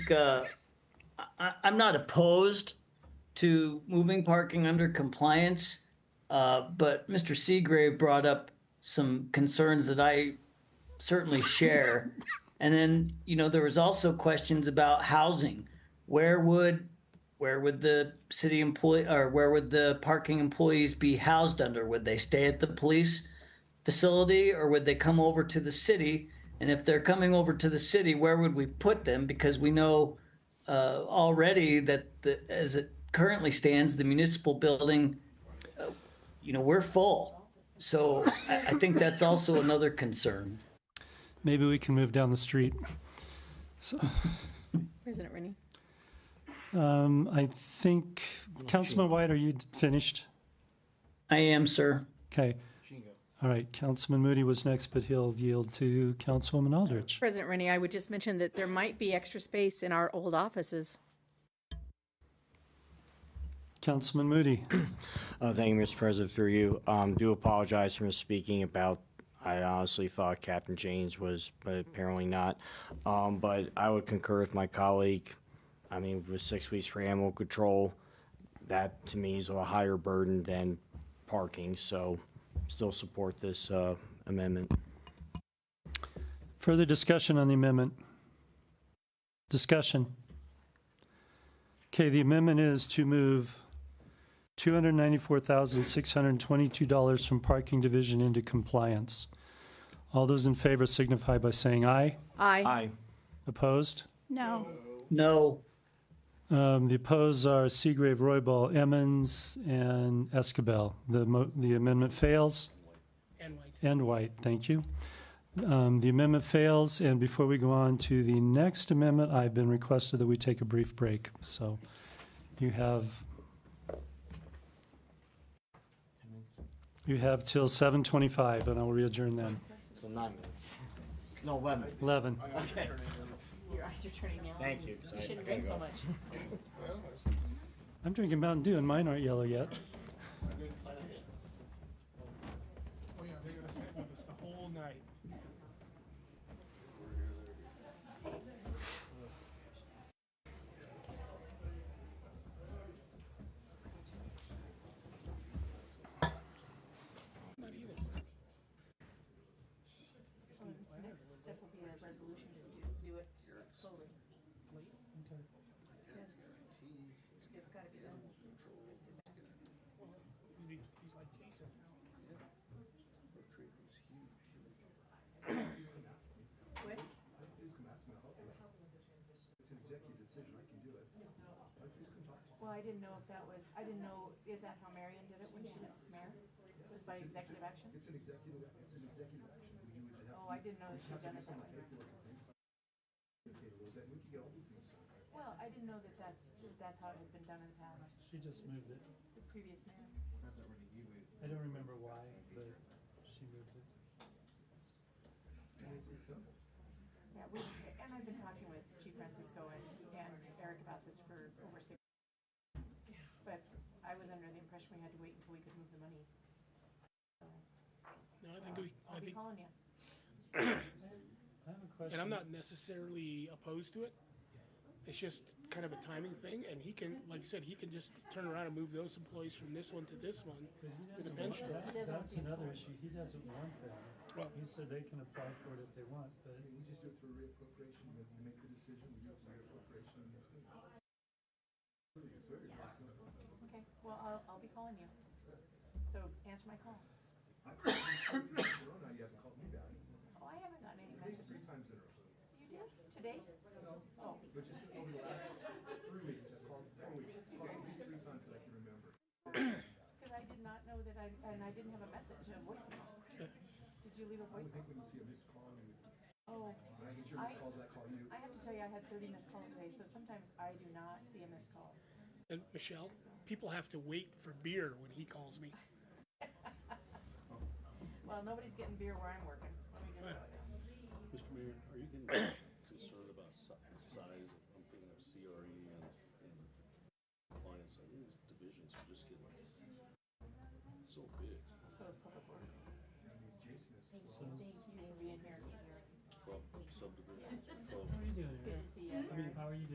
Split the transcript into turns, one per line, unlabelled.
uh, I, I'm not opposed to moving parking under compliance, uh, but Mr. Seagrave brought up some concerns that I certainly share. and then, you know, there was also questions about housing. Where would where would the city employee or where would the parking employees be housed under? Would they stay at the police facility or would they come over to the city? And if they're coming over to the city, where would we put them? Because we know uh, already that the, as it currently stands, the municipal building, uh, you know, we're full. So I, I think that's also another concern.
Maybe we can move down the street.
President Rennie.
Um, I think, Councilman White, are you finished?
I am, sir.
Okay. All right, Councilman Moody was next, but he'll yield to Councilwoman Aldrich.
President Rennie, I would just mention that there might be extra space in our old offices.
Councilman Moody,
Uh, Thank you, Mr. President, through you. Um, Do apologize for misspeaking about, I honestly thought Captain James was, but apparently not. Um, But I would concur with my colleague. I mean, with six weeks for animal control, that to me is a higher burden than parking, so still support this uh, amendment.
further discussion on the amendment? Discussion. Okay, the amendment is to move $294,622 from Parking Division into compliance. All those in favor signify by saying aye.
Aye.
Aye.
Opposed?
No.
No,
Um, The opposed are Seagrave, Roybal, Emmons, and Escabel. The mo- the amendment fails. And White. And White, thank you. Um, The amendment fails, and before we go on to the next amendment, I've been requested that we take a brief break. So you have, you have till 7:25, and I will readjourn then.
So nine minutes. No, 11.
11.
Your eyes are turning yellow.
Thank you.
You shouldn't drink so much.
I'm drinking Mountain Dew, and mine aren't yellow yet.
Oh yeah, they're gonna sit with us the whole night. He's like Jason.
Well, I didn't know if that was, I didn't know, is that how Marion did it when she was mayor? Was by executive action? It's an executive, it's an executive action. Oh, I didn't know that she'd done it that way. Well, I didn't know that that's, that that's how it had been done in the past,
She just moved it.
the previous mayor.
I don't remember why, but she moved it.
Yeah, we, and I've been talking with Chief Francisco and, and Eric about this for over six. But I was under the impression we had to wait until we could move the money.
No, I think we, I
I'll be
think,
calling you.
I have a question.
and I'm not necessarily opposed to it. It's just kind of a timing thing, and he can, like I said, he can just turn around and move those employees from this one to this one.
He
With a
doesn't
bench
want-
drawer.
that- That's another issue. He doesn't want that.
Well-
He said they can apply for it if they want, but.
Okay, well, I'll, I'll be calling you. So answer my call. Oh, I haven't gotten any messages. You did? Today? Oh. Because I did not know that I, and I didn't have a message, a voicemail. Did you leave a voicemail? Oh. I get your missed calls, I call you. I have to tell you, I had thirty missed calls today, so sometimes I do not see a missed call.
And Michelle, people have to wait for beer when he calls me.
Well, nobody's getting beer where I'm working. Let me just tell you.
Mr. Mayor, are you getting concerned about si- size? I'm thinking of CRE and, and compliance. I mean, these divisions are just getting so big.
So is Public Works. Thank you for being here.
Twelve subdivisions, twelve
How are you doing,
Good to see you, Eric.
How are you doing?